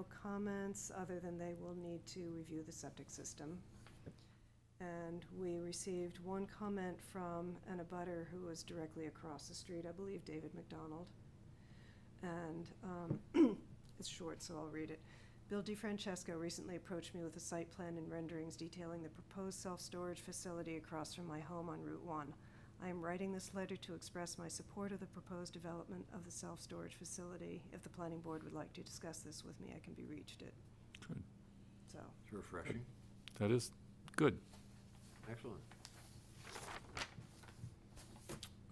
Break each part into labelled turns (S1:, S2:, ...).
S1: No comments, other than they will need to review the septic system. And we received one comment from an abutter who was directly across the street, I believe David McDonald. And um, it's short, so I'll read it. Bill DiFrancesco recently approached me with a site plan and renderings detailing the proposed self-storage facility across from my home on Route 1. I am writing this letter to express my support of the proposed development of the self-storage facility. If the planning board would like to discuss this with me, I can be reached at,
S2: Good.
S1: so.
S3: It's refreshing.
S2: That is good.
S3: Excellent.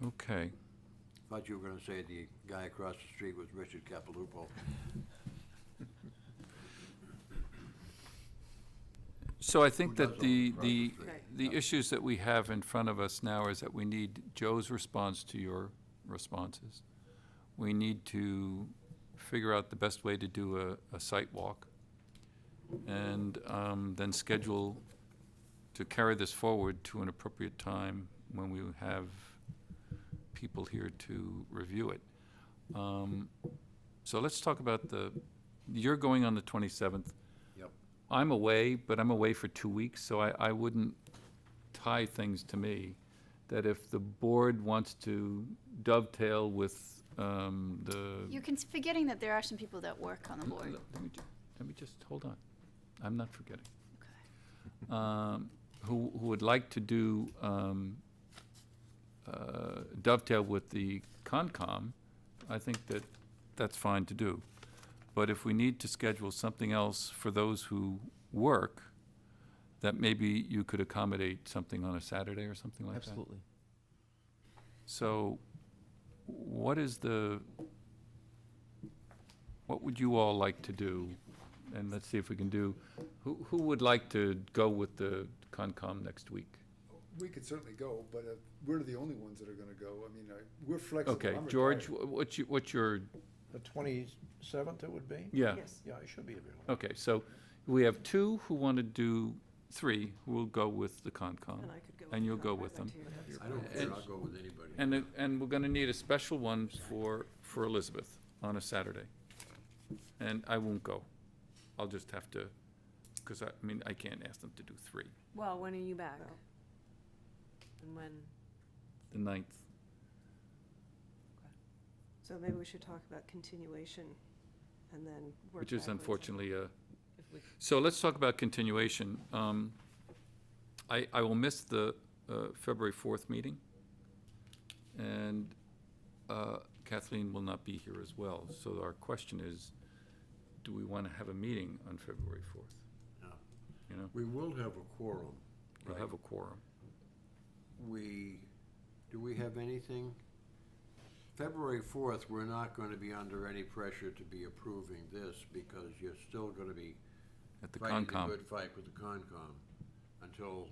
S2: Okay.
S3: Thought you were gonna say the guy across the street was Richard Capilupo.
S2: So I think
S3: Who does
S2: that
S3: all
S2: the,
S3: the
S2: the,
S3: projects, right?
S2: the
S3: Yeah.
S2: issues that we have in front of us now is that we need Joe's response to your responses. We need to figure out the best way to do a, a site walk. And, um, then schedule to carry this forward to an appropriate time when we have people here to review it. Um, so let's talk about the, you're going on the twenty-seventh.
S3: Yep.
S2: I'm away, but I'm away for two weeks, so I, I wouldn't tie things to me. That if the board wants to dovetail with, um, the.
S4: You're cons- forgetting that there are some people that work on the board.
S2: Let me, ju- let me just, hold on. I'm not forgetting.
S4: Okay.
S2: um, who, who would like to do um, uh, dovetail with the Concom, I think that that's fine to do. But if we need to schedule something else for those who work, that maybe you could accommodate something on a Saturday or something like that?
S5: Absolutely.
S2: So what is the, what would you all like to do? And let's see if we can do, who, who would like to go with the Concom next week?
S6: We could certainly go, but uh, we're the only ones that are gonna go. I mean, I- we're flexible.
S2: Okay,
S6: I'm
S2: George,
S6: retired.
S2: wh- what's your, what's your,
S5: The twenty-seventh it would be?
S2: yeah,
S1: Yes,
S5: Yeah, I should be available.
S2: okay, so we have two who want to do, three who will go with the Concom.
S1: and I could go.
S2: And you'll go
S1: I'd
S2: with
S1: like
S2: them.
S1: to hear that.
S3: I don't care, I'll go with anybody.
S2: And, it- and we're gonna need a special one for, for Elizabeth on a Saturday. And I won't go. I'll just have to, because I, I mean, I can't ask them to do three.
S7: Well, when are you back?
S1: Well.
S7: And when?
S2: The ninth.
S1: So maybe we should talk about continuation and then work
S2: Which is
S1: backwards.
S2: unfortunately a,
S7: if we-
S2: so let's talk about continuation. Um, I, I will miss the uh, February 4th meeting, and uh, Kathleen will not be here as well. So our question is, do we want to have a meeting on February 4th?
S3: No.
S2: You know,
S3: We will have a quorum.
S2: we'll have a quorum.
S3: We, do we have anything? February fourth, we're not gonna be under any pressure to be approving this because you're still gonna be
S2: At the
S3: fighting a
S2: Concom,
S3: good fight with the Concom until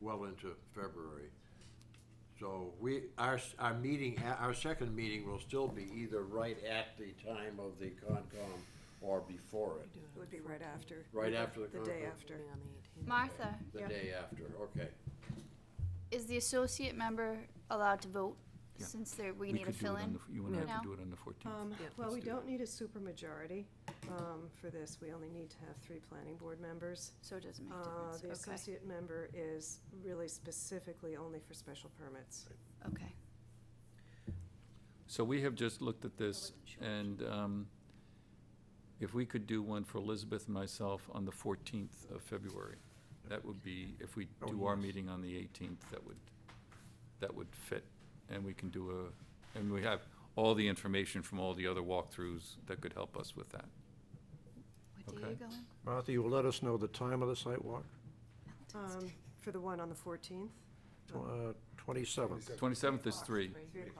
S3: well into February. So we, our, s- our meeting, a- our second meeting will still be either right at the time of the Concom or before it,
S1: It Would be right after.
S3: Right after the
S1: The day
S3: conference.
S1: after.
S7: Meeting on the 18th.
S4: Martha,
S3: the day after, okay.
S4: is the associate member allowed to vote
S2: Yeah.
S4: since there, we
S2: we
S4: need a
S2: could do it on
S4: fill-in?
S2: the, you and I
S4: No.
S2: could do it on the 14th.
S1: Um,
S7: Yeah.
S1: Well,
S2: Let's
S1: we
S2: do
S1: don't need a supermajority um, for this. We only need to have three planning board members.
S4: So it doesn't make
S1: Uh, The
S4: a difference.
S1: associate member is really specifically only for special permits.
S4: Okay, okay.
S2: So we have just looked at this,
S4: wasn't sure.
S2: and um, if we could do one for Elizabeth and myself on the 14th of February, that would be, if we
S5: Oh,
S2: do our
S5: yes.
S2: meeting on the 18th, that would, that would fit. And we can do a, and we have all the information from all the other walkthroughs that could help us with that.
S4: What day are
S2: Okay.
S4: you going?
S5: Martha, you will let us know the time of the site walk,
S1: Um, For the one on the 14th?
S5: Tw- uh, twenty-seventh,
S2: 27th
S1: oh,
S2: is 3,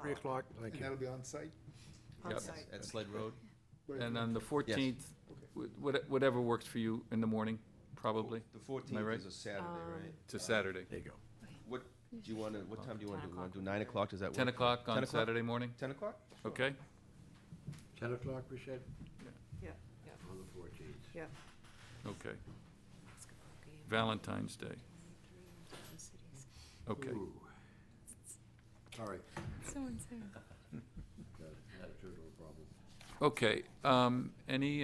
S5: three o'clock, thank
S6: And
S5: you.
S6: that'll be on site?
S1: On
S2: Yep.
S1: site.
S8: At Sled Road?
S6: Right.
S2: and on the 14th, wh- what- whatever works for you in the morning, probably.
S8: The
S2: right?
S8: fourteenth is a Saturday, right?
S1: Um,
S2: It's a Saturday.
S5: There you go.
S8: What, do you wanna, what time do you wanna
S7: 10
S8: do? You wanna
S7: o'clock.
S8: do nine o'clock? Does that work?
S2: 10 o'clock
S8: 10
S2: on Saturday morning,
S8: Ten o'clock?
S2: okay?
S3: Ten o'clock, we said?
S1: Yeah.
S3: On the fourteenth.
S1: Yeah.
S2: Okay. Valentine's Day. Okay,
S3: Sorry,
S7: So and so.
S3: got attitude of a problem.
S2: Okay, um, any